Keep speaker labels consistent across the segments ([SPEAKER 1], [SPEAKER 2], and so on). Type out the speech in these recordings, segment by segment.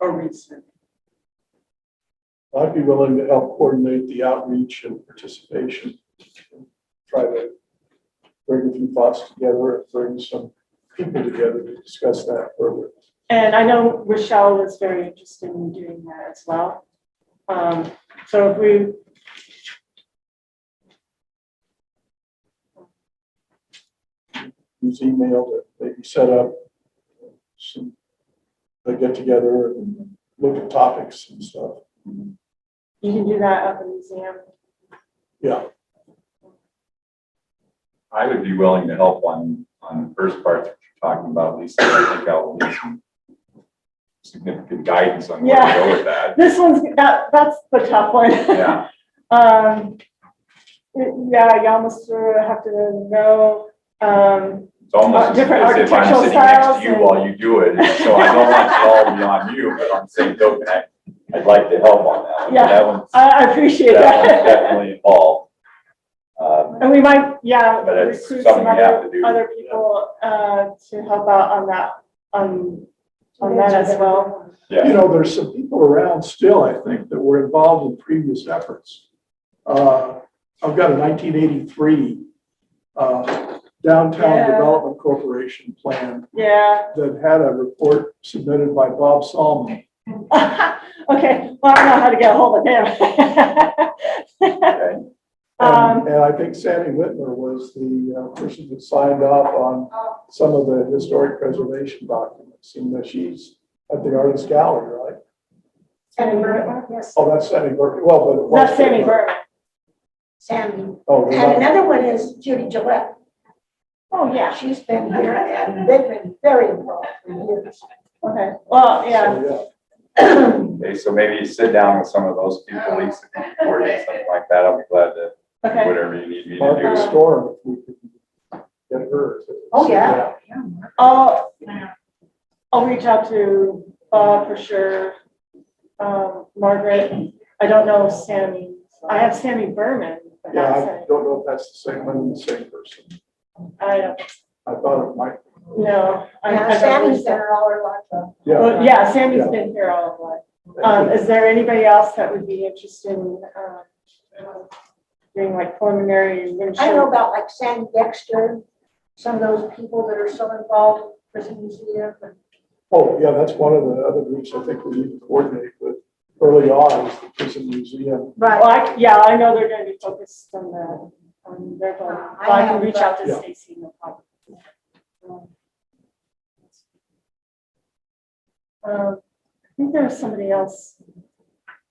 [SPEAKER 1] a reason.
[SPEAKER 2] I'd be willing to help coordinate the outreach and participation. Try to bring a few thoughts together, and bring some people together to discuss that further.
[SPEAKER 1] And I know Rochelle was very interested in doing that as well. Um, so if we.
[SPEAKER 2] Use email to maybe set up some, they get together and look at topics and stuff.
[SPEAKER 1] You can do that at the museum.
[SPEAKER 2] Yeah,
[SPEAKER 3] I would be willing to help on, on the first part that you're talking about, Lisa. I think I'll need some significant guidance on where to go with that.
[SPEAKER 1] This one's, that, that's the tough one.
[SPEAKER 3] Yeah,
[SPEAKER 1] Um, yeah, you almost sort of have to know, um,
[SPEAKER 3] it's almost as
[SPEAKER 1] Different
[SPEAKER 3] as if I'm
[SPEAKER 1] architectural
[SPEAKER 3] sitting next
[SPEAKER 1] styles
[SPEAKER 3] to you
[SPEAKER 1] and-
[SPEAKER 3] while you do it. So I don't want it all be on you, but on the same token, I, I'd like to help on that one.
[SPEAKER 1] Yeah.
[SPEAKER 3] That one's,
[SPEAKER 1] I, I appreciate
[SPEAKER 3] that one's
[SPEAKER 1] that.
[SPEAKER 3] definitely involved. Um,
[SPEAKER 1] And we might, yeah,
[SPEAKER 3] But it's
[SPEAKER 1] recruit some
[SPEAKER 3] something we have
[SPEAKER 1] other,
[SPEAKER 3] to do.
[SPEAKER 1] other people, uh, to help out on that, on, on that as well.
[SPEAKER 2] you
[SPEAKER 3] yeah,
[SPEAKER 2] know, there's some people around still, I think, that were involved in previous efforts. Uh, I've got a nineteen eighty-three uh, Downtown
[SPEAKER 1] Yeah.
[SPEAKER 2] Development Corporation plan
[SPEAKER 1] Yeah.
[SPEAKER 2] that had a report submitted by Bob Salman.
[SPEAKER 1] Okay, well, I know how to get a hold of him.
[SPEAKER 3] okay.
[SPEAKER 1] Um,
[SPEAKER 2] And and I think Sandy Whitmer was the uh, person that signed off on some of the historic preservation documents, seeing that she's at the artist gallery, right?
[SPEAKER 4] Sandy Burton, yes,
[SPEAKER 2] Oh, that's Sandy Burke, well, but. it was-
[SPEAKER 1] that's Sammy Burman.
[SPEAKER 4] Sandy.
[SPEAKER 2] Oh,
[SPEAKER 4] And
[SPEAKER 2] yeah.
[SPEAKER 4] another one is Judy Gillette.
[SPEAKER 1] Oh, yeah,
[SPEAKER 4] She's been here and they've been very involved for years.
[SPEAKER 1] okay, well, yeah,
[SPEAKER 2] So,
[SPEAKER 3] Okay, so maybe sit down with some of those people, Lisa, or something like that. I'll be glad to do
[SPEAKER 1] okay. Uh,
[SPEAKER 3] whatever you need me to
[SPEAKER 2] Martha
[SPEAKER 3] do.
[SPEAKER 2] Storm, if we could get her. to
[SPEAKER 4] Oh,
[SPEAKER 2] sit
[SPEAKER 4] yeah.
[SPEAKER 2] down.
[SPEAKER 1] I'll, I'll reach out to Bob for sure. Um, Margaret, I don't know Sammy, I have Sammy Berman, but
[SPEAKER 2] Yeah,
[SPEAKER 1] not
[SPEAKER 2] I
[SPEAKER 1] Sammy.
[SPEAKER 2] don't know if that's the same one and the same person.
[SPEAKER 1] I don't,
[SPEAKER 2] I thought it might,
[SPEAKER 1] no. I- I
[SPEAKER 4] Yeah,
[SPEAKER 1] don't
[SPEAKER 4] Sandy's
[SPEAKER 1] think-
[SPEAKER 4] been her all her life. though.
[SPEAKER 2] yeah.
[SPEAKER 1] Well, yeah, Sammy's
[SPEAKER 2] Yeah.
[SPEAKER 1] been here all of life. Um, is there anybody else that would be interested in, um, doing like preliminary?
[SPEAKER 4] I know
[SPEAKER 1] administrative-
[SPEAKER 4] about like Sandy Dexter, some of those people that are still involved with the museum. and-
[SPEAKER 2] Oh, yeah, that's one of the other groups I think we need to coordinate with early on is the prison museum.
[SPEAKER 1] Well, I, yeah, I know they're gonna be focused on the, on their, goal.
[SPEAKER 4] Uh, I
[SPEAKER 1] Well, I can
[SPEAKER 4] have,
[SPEAKER 1] reach out to
[SPEAKER 2] Yeah.
[SPEAKER 1] Stacy, no problem. Um, I think there was somebody else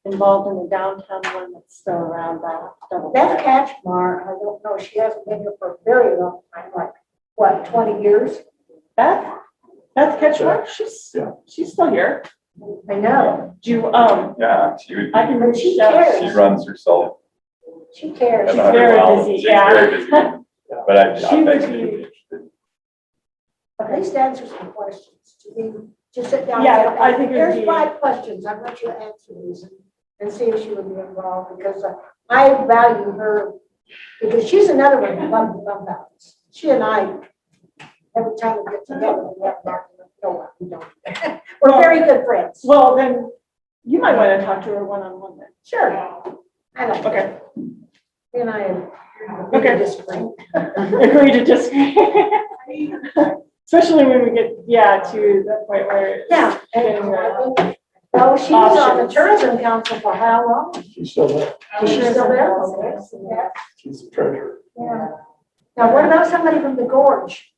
[SPEAKER 1] involved in the downtown one that's still around, but I'll double
[SPEAKER 4] Beth
[SPEAKER 1] check.
[SPEAKER 4] Catchmar, I don't know, she hasn't been here for a very long time, like, what, twenty years?
[SPEAKER 1] Beth? Beth Ketchmark, she's,
[SPEAKER 2] Yeah.
[SPEAKER 1] she's still here.
[SPEAKER 4] I know,
[SPEAKER 1] Do you, um,
[SPEAKER 3] Yeah, she would,
[SPEAKER 1] I can
[SPEAKER 4] But
[SPEAKER 1] reach
[SPEAKER 4] she
[SPEAKER 1] out.
[SPEAKER 4] cares.
[SPEAKER 3] she runs herself.
[SPEAKER 4] she cares.
[SPEAKER 3] at
[SPEAKER 1] She's very
[SPEAKER 3] 100 miles.
[SPEAKER 1] busy,
[SPEAKER 3] She's
[SPEAKER 1] yeah.
[SPEAKER 3] very busy, But I,
[SPEAKER 1] She
[SPEAKER 3] I
[SPEAKER 1] would
[SPEAKER 3] bet she'd
[SPEAKER 1] be-
[SPEAKER 3] be interested.
[SPEAKER 4] At least answer some questions. Do you, just sit down. and
[SPEAKER 1] Yeah,
[SPEAKER 4] say, okay,
[SPEAKER 1] I think it would be-
[SPEAKER 4] Here's five questions. I want you to answer these and- and see if she would be involved because uh, I value her. Because she's another one who loves the fun balance. She and I, every time we get together, we have that, no, we don't. We're very good friends.
[SPEAKER 1] Well, then you might want to talk to her one-on-one then.
[SPEAKER 4] Sure. I know.
[SPEAKER 1] Okay.
[SPEAKER 4] You and I are.
[SPEAKER 1] Okay.
[SPEAKER 4] Disagree.
[SPEAKER 1] Agree to disagree. Especially when we get, yeah, to the point where. it's-
[SPEAKER 4] Yeah.
[SPEAKER 1] uh,
[SPEAKER 4] and I think- Oh, she was on the tourism council for how long?
[SPEAKER 2] She's still there.
[SPEAKER 4] Is she still there? Yeah.
[SPEAKER 2] She's the treasurer.
[SPEAKER 4] Yeah. Now, what about somebody from the gorge?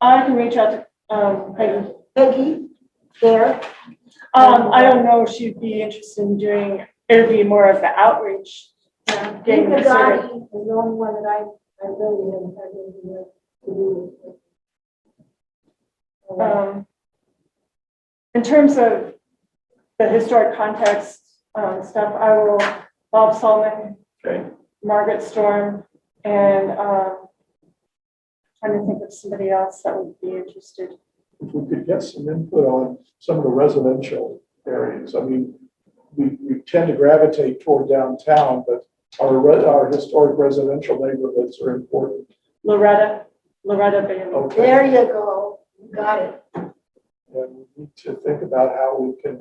[SPEAKER 1] I can reach out to, um, Peggy.
[SPEAKER 4] Peggy, there,
[SPEAKER 1] Um, I don't know if she'd be interested in doing, it'd be more of the outreach.
[SPEAKER 4] Dave
[SPEAKER 1] Yeah, you can
[SPEAKER 4] Gotti is the only one that I, I really haven't had anything to do with. Uh,
[SPEAKER 1] Um, in terms of the historic context, um, stuff, I will, Bob Solomon,
[SPEAKER 3] Okay,
[SPEAKER 1] Margaret Storm, and, um, trying to think of somebody else that would be interested.
[SPEAKER 2] If we could get some input on some of the residential areas, I mean, we, we tend to gravitate toward downtown, but our, re- our historic residential neighborhoods are important.
[SPEAKER 1] Loretta, Loretta Bailey.
[SPEAKER 4] Oh,
[SPEAKER 2] Okay.
[SPEAKER 4] There you go, you got it.
[SPEAKER 2] And we need to think about how we can